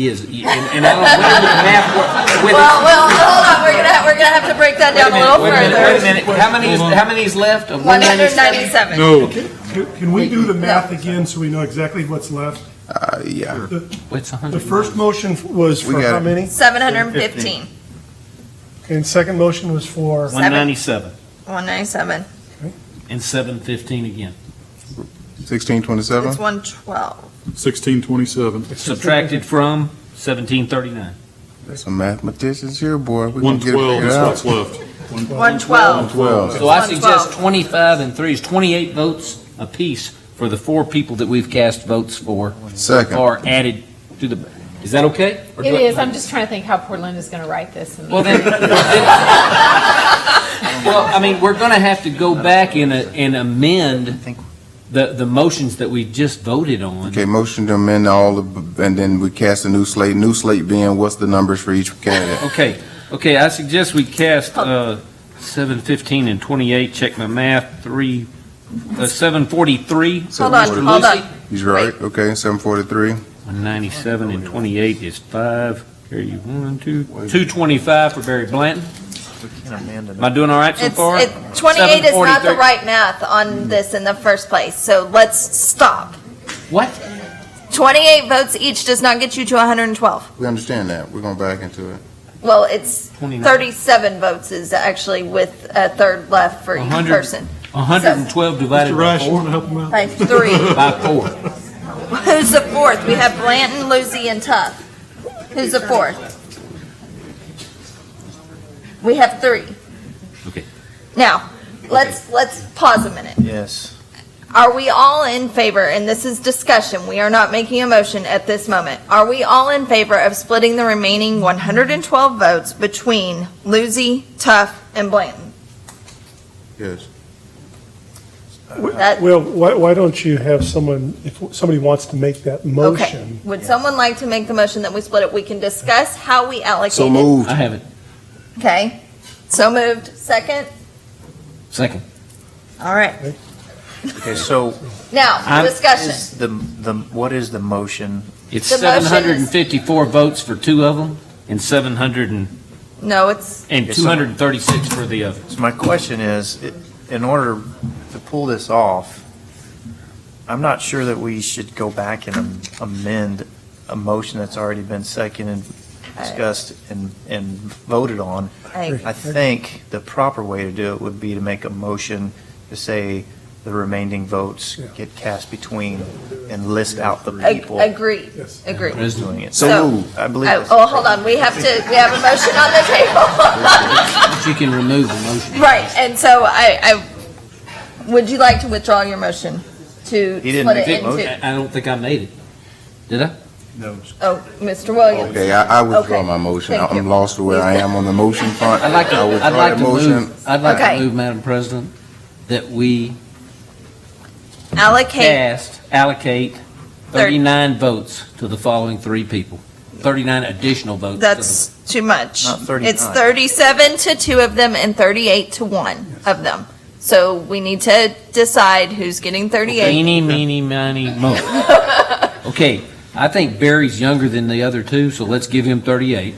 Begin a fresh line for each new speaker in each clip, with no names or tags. He is, he- and and I don't, whatever the math, wa- whether-
Well, well, hold on, we're gonna, we're gonna have to break that
wait a
down a
minute,
little
wait a minute, wait a
further.
minute, how many, is- how many is left of
One
197?
hundred ninety-seven.
No.
Can can we do the math again so we know exactly what's left?
Uh, yeah.
The
What's
the
100?
first motion was
We
for
got
how
it.
many?
Seven hundred and fifteen,
And second motion was for,
Seven.
197
one ninety-seven,
and 715 again.
Sixteen twenty-seven?
it's one twelve.
1627.
Subtracted from 1739.
Some mathematicians here, boy. We can get it
112
figured
is what's
out.
left.
One twelve.
12.
So I
112.
suggest 25 and 3 is 28 votes apiece for the four people that we've cast votes for.
Second.
Or added to the, is that okay? Or do
It
I-
is, I'm just trying to think how Portland is going to write this. and-
Well, then, well, I mean, we're going to have to go back and, uh, and amend the, the motions that we just voted on.
Okay, motion to amend all the, and then we cast a new slate. New slate being what's the numbers for each candidate?
Okay, okay, I suggest we cast, uh, seven fifteen and twenty-eight, check my math, three, uh, seven forty-three.
Hold on,
Mr.
hold
Lucy?
on.
He's right. Okay, seven forty-three.
One ninety-seven and twenty-eight is five, carry you one, two, two twenty-five for Barry Blanton. Am I doing all right so
It's,
far?
it, twenty-eight is not the
743.
right math on this in the first place, so let's stop.
What?
Twenty-eight votes each does not get you to hundred and twelve.
We understand that. We're going back into it.
Well, it's
29.
thirty-seven votes is actually with a third left for each
100.
person,
hundred and twelve divided
Mr.
by
Rice, you
four?
want to help him out?
by three.
By four.
Who's the fourth? We have Blanton, Lucy, and Tough. Who's the fourth? We have three.
Okay.
Now, let's, let's pause a minute.
Yes.
Are we all in favor, and this is discussion, we are not making a motion at this moment. Are we all in favor of splitting the remaining 112 votes between Lucy, Tough, and Blanton?
Yes.
That,
Well, why, why don't you have someone, if somebody wants to make that
okay.
motion?
Would someone like to make the motion that we split it? We can discuss how we allocate it.
So moved.
I have it.
Okay, so moved. Second?
Second.
All right.
Okay, so
Now,
I'm-
discussion.
is the, the, what is the motion?
It's
The
seven
motion is-
hundred and fifty-four votes for two of them and seven hundred and,
No, it's,
and
Yes,
two
sir.
hundred and thirty-six for the other.
So my question is, i- in order to pull this off, I'm not sure that we should go back and am- amend a motion that's already been seconded, discussed, and, and voted on.
I,
I think the proper way to do it would be to make a motion to say the remaining votes
Yeah.
get cast between and list out the
ag-
people
agree,
Yes.
agree.
who's doing it.
So-
So moved.
I believe
Oh,
that's
oh, hold on, we have to, we have a motion on the table.
But you can remove the motion.
Right, and so I, I, would you like to withdraw your motion to
He didn't
split it
make the
into?
I I don't think I made it. Did I?
Oh, Mr. Williams.
Okay, I, I withdraw
Okay,
my motion.
thank you.
I'm lost to where I am on the motion front.
I'd like to,
I withdraw
I'd like
that
to
motion.
move, I'd like
Okay.
to move, Madam President, that we
Allocate,
cast, allocate thirty-nine votes to the following three people. Thirty-nine additional votes. to the-
that's too much.
Not 39.
It's thirty-seven to two of them and thirty-eight to one of them. So we need to decide who's getting thirty-eight.
Eeny, meeny, miny, moe. Okay, I think Barry's younger than the other two, so let's give him thirty-eight.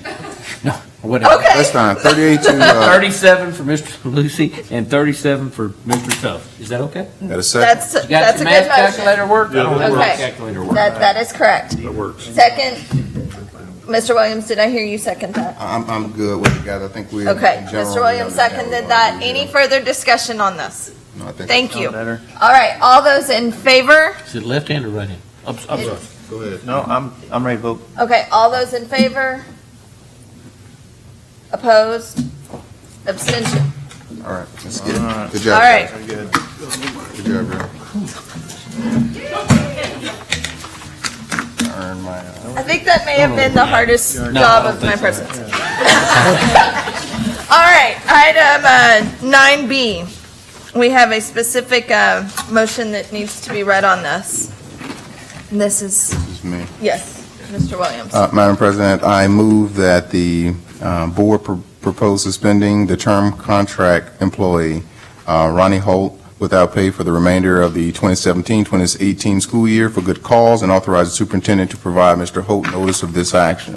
No, whatever.
Okay.
That's fine. Thirty-eight to, uh,
Thirty-seven for Mr. Lucy and thirty-seven for Mr. Tough. Is that okay?
at a second.
That's,
You got
that's
your
a good
math
motion.
calculator work? I don't have my
Okay.
calculator work.
That, that is correct.
That works.
Second, Mr. Williams, did I hear you second that?
I'm, I'm good with it, guys. I think we.
Okay,
in general,
Mr.
we
Williams
understand
seconded
what
that.
we're
Any
doing.
further discussion on this?
No, I think-
Thank
sound
you.
better.
All right, all those in favor?
Is it left hand or right hand? I'm, I'm sorry.
Go ahead.
No, I'm, I'm ready to vote
Okay, all those in favor? Opposed? Abstention?
All right, let's get it. Good job.
All right.
guys. Good job, bro. I earned my, uh,
I think that may have been the hardest
No, I
job
don't
of my
think so.
presence. All right, item uh, nine B. We have a specific uh, motion that needs to be read on this. And This is,
this is me.
yes, Mr. Williams.
Uh, Madam President, I move that the uh, board pro- propose suspending the term contract employee uh, Ronnie Holt without pay for the remainder of the 2017-2018 school year for good cause and authorize the superintendent to provide Mr. Holt notice of this action.